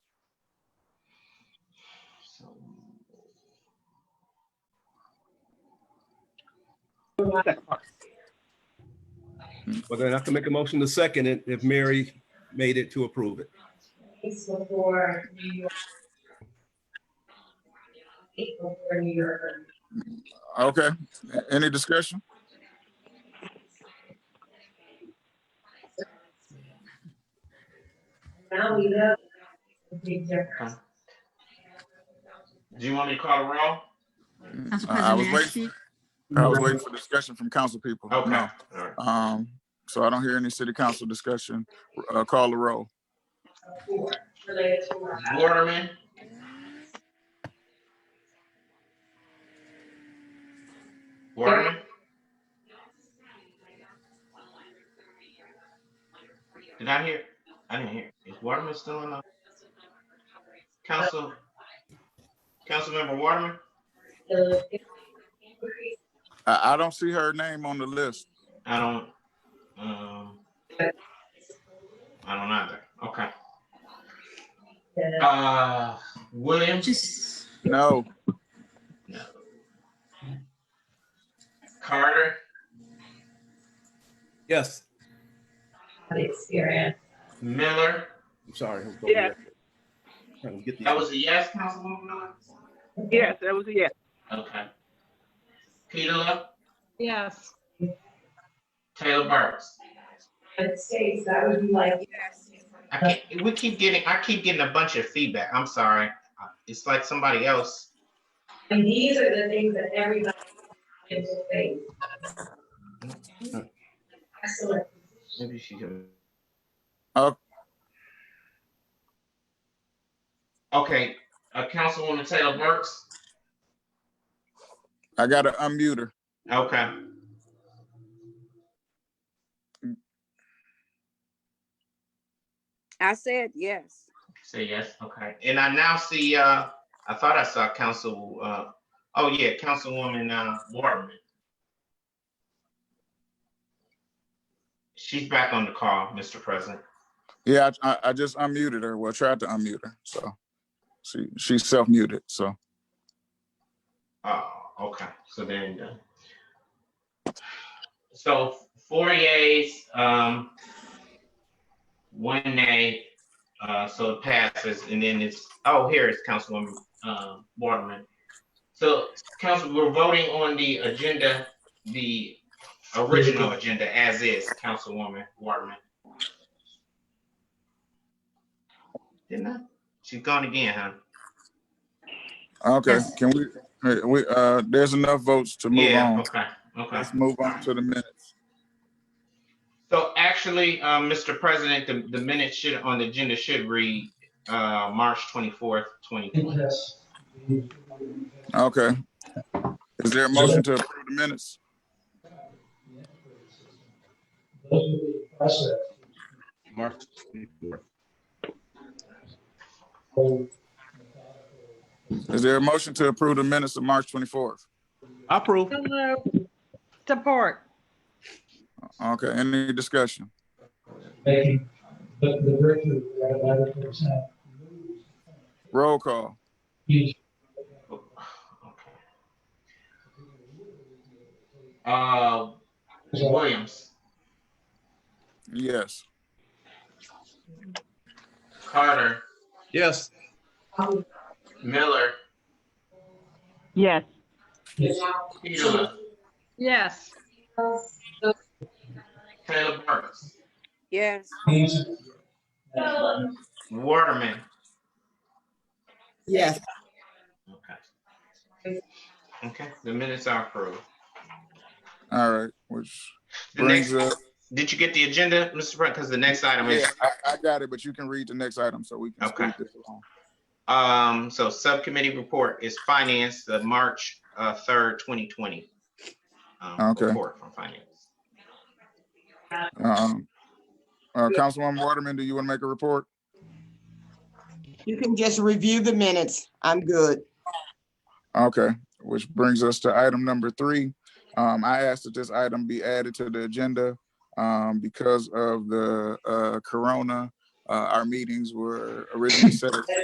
Well, then I can make a motion to second it if Mary made it to approve it. It's before New York. It's before New York. Okay, any discussion? Now we know. the Big difference. Do you want me to call the roll? Council I- I was President Nasty, I was waiting for discussion from council people. Okay. No. All right. Um, so I don't hear any city council discussion. Uh, call the roll. Before, related to our house. Waterman, Waterman, did I hear? I didn't hear. Is Waterman still on the council? Councilmember Waterman? The- I, I don't see her name on the list. I don't, um, I don't either. Okay. the- Uh, Williams? Just, No, No. Carter? Yes, the Experience. Miller? I'm sorry. I was going there. Trying to get the- That was a yes, Councilwoman Miller? Yes, that was a yes. Okay. Petula, Yes. Taylor Burks. United States, that would be like. I can't, we keep getting, I keep getting a bunch of feedback. I'm sorry. It's like somebody else. And these are the things that everybody is facing. Excellent. Maybe she can. Up. Okay, uh, Councilwoman Taylor Burks. I gotta unmute her. Okay. I said yes. Say yes, okay. And I now see, uh, I thought I saw Council, uh, oh yeah, Councilwoman, uh, Waterman. She's back on the call, Mr. President. Yeah, I, I- I just unmuted her. Well, tried to unmute her, so. She, she's self-muted, so. Oh, okay, so then, uh, so four yeas, um, one nay, uh, so it passes, and then it's, oh, here is Councilwoman, um, Waterman. So, council, we're voting on the agenda, the original agenda as is, Councilwoman Waterman. Didn't I? She's gone again, huh? Okay, can we, hey, we, uh, there's enough votes to move Yeah, on. Okay, okay. Let's move on to the minutes. So actually, uh, Mr. President, the, the minutes should, on the agenda should read, uh, March twenty-fourth, twenty twenty. Okay. Is there a motion to approve the minutes? March 24th. Is there a motion to approve the minutes of March twenty-fourth? I approve. Hello. Support. Okay, any discussion? making the, the virtue of that eleven percent. Roll call. Uh, Williams, Yes. Carter, Yes, Um, Miller, Yes. Petula, Yes. Taylor Burks, Yes. Waterman. Yes. Okay. Okay, the minutes are approved. All right, which The next, brings up, did you get the agenda, Mr. President? Because the next item yeah, is I, I got it, but you can read the next item so we can Okay. speed this along. Um, so subcommittee report is finance, the March, uh, third, twenty twenty. um, Okay. Report from finance. Um, uh, Councilwoman Waterman, do you want to make a report? You can just review the minutes. I'm good. Okay, which brings us to item number three. Um, I asked that this item be added to the agenda, um, because of the, uh, corona. Uh, our meetings were originally set at